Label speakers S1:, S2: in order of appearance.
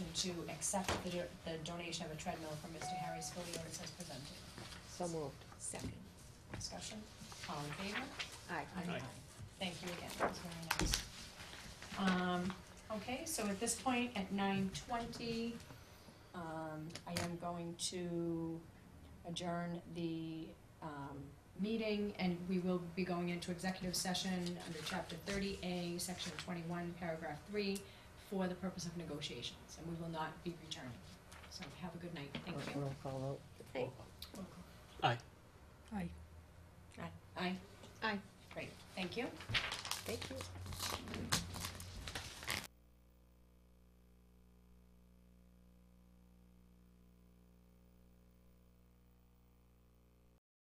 S1: to accept the, do- the donation of a treadmill from Mr. Harry Spilliers as presented.
S2: So moved.
S3: Second.
S1: Discussion, all in favor?
S2: Aye.
S1: Aye. Thank you again, that was very nice. Um, okay, so at this point, at nine twenty, um, I am going to adjourn the, um, meeting, and we will be going into executive session under chapter thirty A, section twenty-one, paragraph three, for the purpose of negotiations, and we will not be returning. So have a good night, thank you.
S2: Roll call vote.
S4: Aye.
S3: Aye.
S1: Aye?
S2: Aye.
S1: Great, thank you.
S2: Thank you.